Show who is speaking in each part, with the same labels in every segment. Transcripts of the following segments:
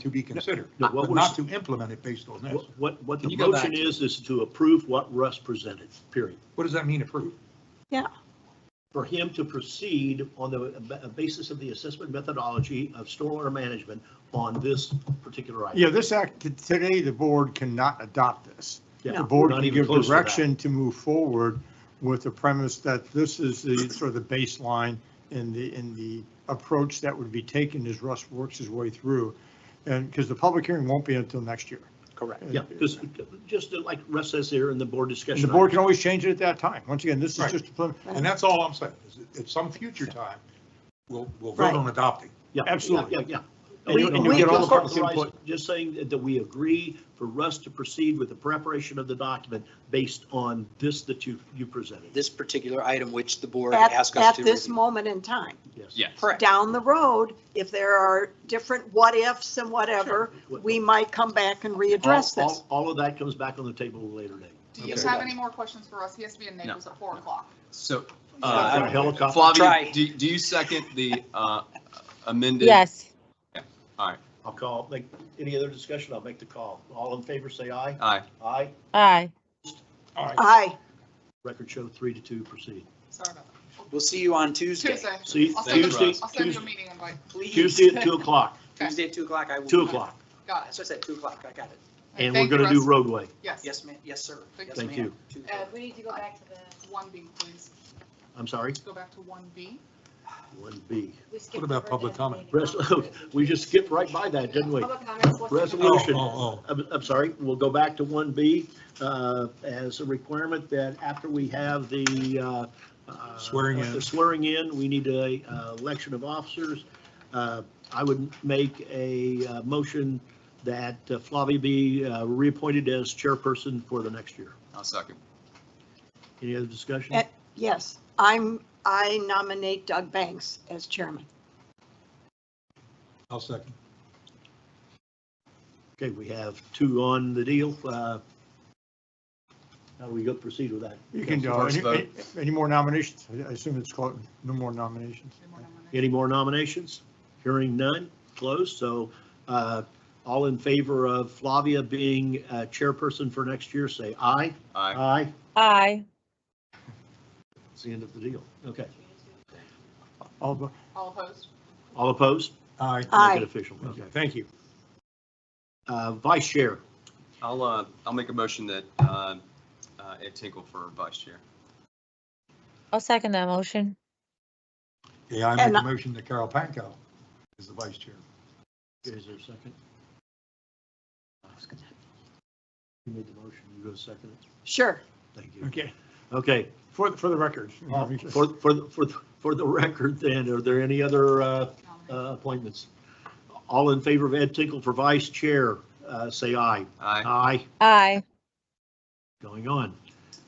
Speaker 1: to be considered,
Speaker 2: No, what
Speaker 1: but
Speaker 2: we're-
Speaker 1: not to implement it based on this.
Speaker 2: What- What, what
Speaker 1: Can
Speaker 2: the
Speaker 1: you go back
Speaker 2: motion
Speaker 1: to-
Speaker 2: is, is to approve what Russ presented, period.
Speaker 1: What does that mean approve?
Speaker 2: For him to proceed on the ba- basis of the assessment methodology of stormwater management on this particular item.
Speaker 3: Yeah, this act, t- today, the board cannot adopt this.
Speaker 2: Yeah,
Speaker 3: The board
Speaker 2: not
Speaker 3: can
Speaker 2: even
Speaker 3: give
Speaker 2: close to that.
Speaker 3: direction to move forward with the premise that this is the sort of the baseline and the, and the approach that would be taken as Russ works his way through. And, because the public hearing won't be until next year.
Speaker 4: Correct.
Speaker 2: Yeah, because, just like Russ says there in the board
Speaker 3: And
Speaker 2: discussion.
Speaker 3: the board can always change it at that time. Once again, this is
Speaker 1: Right.
Speaker 3: just, a prelim-
Speaker 1: And that's all I'm saying, is that at some future time, we'll, we'll vote
Speaker 4: Right.
Speaker 1: on adopting.
Speaker 2: Yeah,
Speaker 3: Absolutely.
Speaker 2: Yeah, yeah. yeah.
Speaker 3: And you-
Speaker 4: and you
Speaker 2: We-
Speaker 4: get all
Speaker 2: we
Speaker 4: the public
Speaker 2: just authorized-
Speaker 3: input.
Speaker 2: Just saying that- that we agree for Russ to proceed with the preparation of the document based on this that you, you presented.
Speaker 5: this particular item, which the board
Speaker 4: At,
Speaker 5: asked us
Speaker 4: at
Speaker 5: to.
Speaker 4: this
Speaker 5: review.
Speaker 4: moment in time.
Speaker 2: Yes.
Speaker 6: Yes.
Speaker 5: Correct.
Speaker 4: Down the road, if there are different what-ifs and whatever, we might come back and readdress
Speaker 2: All-
Speaker 4: this.
Speaker 2: all- All of that comes back on the table at a later date.
Speaker 7: Do you
Speaker 2: Okay.
Speaker 7: have any more questions for us? He has to be in Naples at four o'clock.
Speaker 6: So,
Speaker 2: Like
Speaker 6: uh,
Speaker 2: a helicopter.
Speaker 5: Try.
Speaker 6: Flavia, do, do you second the uh, amended?
Speaker 8: Yes.
Speaker 2: I'll call, make, any other discussion, I'll make the call. All in favor, say aye.
Speaker 6: Aye.
Speaker 2: Aye.
Speaker 8: Aye.
Speaker 1: All right,
Speaker 4: Aye.
Speaker 2: Record show three to two, proceed.
Speaker 7: Sorry about that.
Speaker 5: We'll see you on Tuesday.
Speaker 7: Tuesday.
Speaker 2: See,
Speaker 7: I'll send you-
Speaker 2: Tuesday,
Speaker 7: I'll send you a
Speaker 2: Tuesday-
Speaker 7: meeting invite.
Speaker 5: Please.
Speaker 2: Tuesday at two o'clock,
Speaker 7: Okay.
Speaker 5: Tuesday at two o'clock, I will.
Speaker 2: two
Speaker 5: be there.
Speaker 2: o'clock,
Speaker 7: Got
Speaker 5: That's
Speaker 7: it.
Speaker 5: what I said, two o'clock, I got it.
Speaker 2: and we're
Speaker 7: Thank you,
Speaker 2: gonna do
Speaker 7: Russ.
Speaker 2: roadway.
Speaker 7: Yes.
Speaker 5: Yes, ma'am, yes, sir. Yes,
Speaker 2: Thank
Speaker 5: ma'am.
Speaker 2: you.
Speaker 5: Tuesday.
Speaker 7: Uh,
Speaker 9: We need to go back to the,
Speaker 7: One B, please.
Speaker 2: I'm sorry,
Speaker 7: Go back to one B.
Speaker 2: one B.
Speaker 9: we skipped.
Speaker 1: What about
Speaker 9: over
Speaker 1: public
Speaker 9: the
Speaker 1: comment?
Speaker 9: meeting.
Speaker 2: Res- we just skipped right by that, didn't we?
Speaker 9: Public comments, what's the-
Speaker 2: Resolution.
Speaker 1: Oh, oh,
Speaker 2: I'm, I'm sorry, we'll go back to one B, uh, as a requirement that after we have the, uh, uh,
Speaker 1: Swearing in.
Speaker 2: the Swearing in, we need a, uh, election of officers. Uh, I would make a, uh, motion that uh, Flavia be, uh, reappointed as chairperson for the next year.
Speaker 6: I'll second.
Speaker 2: Any other discussion?
Speaker 4: Eh. Yes, I'm, I nominate Doug Banks as chairman.
Speaker 1: I'll second.
Speaker 2: Okay, we have two on the deal, uh, how do we go proceed with that?
Speaker 3: you can, uh,
Speaker 6: First
Speaker 3: any- any- any more nominations? I assume it's called, no more nominations.
Speaker 7: Any more nominations?
Speaker 2: Any more nominations? Hearing none, closed, so uh, all in favor of Flavia being uh, chairperson for next year, say aye.
Speaker 6: Aye.
Speaker 2: Aye,
Speaker 8: Aye.
Speaker 2: it's the end of the deal. Okay,
Speaker 3: Although,
Speaker 7: All opposed?
Speaker 2: all opposed?
Speaker 1: Aye.
Speaker 4: Aye.
Speaker 2: Make it official.
Speaker 1: Okay, thank you.
Speaker 2: Uh, Vice Chair,
Speaker 6: I'll, uh, I'll make a motion that uh, uh, Ed Tinkle for vice chair.
Speaker 8: I'll second that motion.
Speaker 1: Yeah, I
Speaker 4: And
Speaker 1: make
Speaker 4: I-
Speaker 1: a motion that Carol Panko is the vice chair.
Speaker 2: is there a second? You made the motion, you go second it?
Speaker 4: Sure.
Speaker 2: Thank you.
Speaker 3: okay,
Speaker 2: Okay, Uh,
Speaker 3: for, for the record.
Speaker 2: for, for, the- for, the- for the record then, are there any other uh, uh,
Speaker 7: Nominations.
Speaker 2: appointments? All in favor of Ed Tinkle for Vice Chair, uh, say aye.
Speaker 6: Aye.
Speaker 2: Aye.
Speaker 8: Aye.
Speaker 2: going on.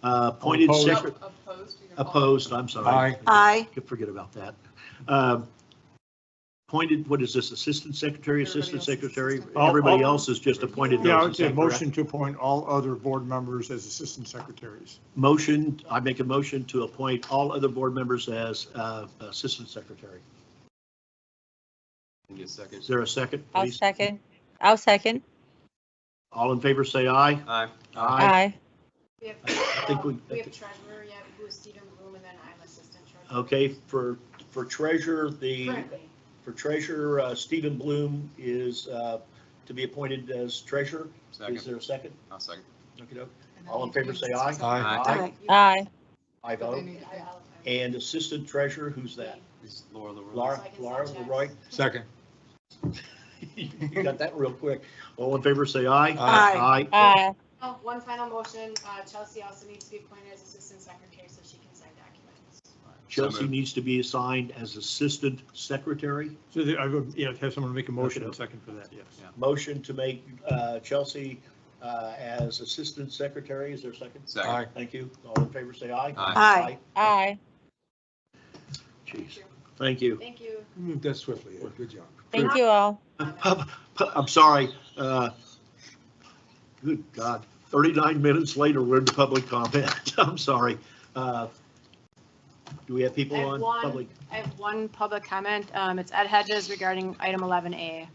Speaker 2: Uh, Appointed
Speaker 3: Opposed.
Speaker 2: secretary,
Speaker 7: Opposed? You can follow.
Speaker 2: opposed, I'm sorry.
Speaker 1: Aye.
Speaker 4: Aye.
Speaker 2: Could Forget about that. Uh, Appointed, what is this, assistant secretary, assistant
Speaker 7: Everybody else is
Speaker 2: secretary?
Speaker 7: assistant.
Speaker 3: All-
Speaker 2: Everybody
Speaker 3: all-
Speaker 2: else is just appointed.
Speaker 3: Yeah, I
Speaker 2: those,
Speaker 3: would
Speaker 2: is
Speaker 3: say
Speaker 2: that correct?
Speaker 3: motion to appoint all other board members as assistant secretaries.
Speaker 2: Motion, I make a motion to appoint all other board members as uh, assistant secretary.
Speaker 6: Give me a second.
Speaker 2: Is there a second,
Speaker 8: I'll
Speaker 2: please?
Speaker 8: second. I'll second.
Speaker 2: All in favor, say aye.
Speaker 6: Aye.
Speaker 8: Aye.
Speaker 9: We have,
Speaker 2: I think we-
Speaker 9: we have treasurer yet, who is Stephen Bloom, and then I'm assistant treasurer.
Speaker 2: Okay, for, for treasurer, the,
Speaker 9: Currently,
Speaker 2: for treasurer, uh, Stephen Bloom is uh, to be appointed as treasurer. Is
Speaker 6: Second.
Speaker 2: there a second?
Speaker 6: I'll second.
Speaker 2: Okey-doke.
Speaker 7: And then
Speaker 2: All in
Speaker 7: you
Speaker 2: favor,
Speaker 7: can
Speaker 2: say aye.
Speaker 7: discuss
Speaker 1: Aye.
Speaker 8: Aye.
Speaker 9: you-
Speaker 8: Aye.
Speaker 2: I
Speaker 7: But they
Speaker 2: vote.
Speaker 7: need to-
Speaker 9: I-
Speaker 7: yeah.
Speaker 9: I'll- I'll-
Speaker 2: And assistant treasurer, who's that?
Speaker 6: This is Laura Leroy.
Speaker 2: Laura,
Speaker 9: So I can
Speaker 2: Laura
Speaker 9: send checks.
Speaker 2: Leroy?
Speaker 1: Second.
Speaker 2: You got that real quick. All in favor, say aye.
Speaker 4: Aye.
Speaker 2: Aye.
Speaker 8: Aye.
Speaker 9: Oh, One final motion, uh, Chelsea also needs to be appointed as assistant secretary so she can sign documents.
Speaker 2: Chelsea needs to be assigned as assistant secretary.
Speaker 3: So the- I would, yeah, have someone make a motion and
Speaker 2: Okay.
Speaker 3: second for that, yes.
Speaker 6: Yeah.
Speaker 2: Motion to make uh, Chelsea uh, as assistant secretary. Is there a second?
Speaker 6: Second.
Speaker 2: Thank you. All in favor, say aye.
Speaker 6: Aye.
Speaker 4: Aye.
Speaker 8: Aye.
Speaker 7: Thank
Speaker 2: Jeez.
Speaker 7: you.
Speaker 2: Thank you.
Speaker 9: Thank you.
Speaker 1: Move that swiftly, Ed. good job.
Speaker 8: Thank you all.
Speaker 2: Pub- pu- I'm sorry. uh, Good God, 39 minutes later, we're in the public comment. I'm sorry. Uh, Do we have people
Speaker 9: I have
Speaker 2: on
Speaker 9: one.
Speaker 2: public?
Speaker 9: I have one public comment. Um, It's Ed Hedges regarding item 11A.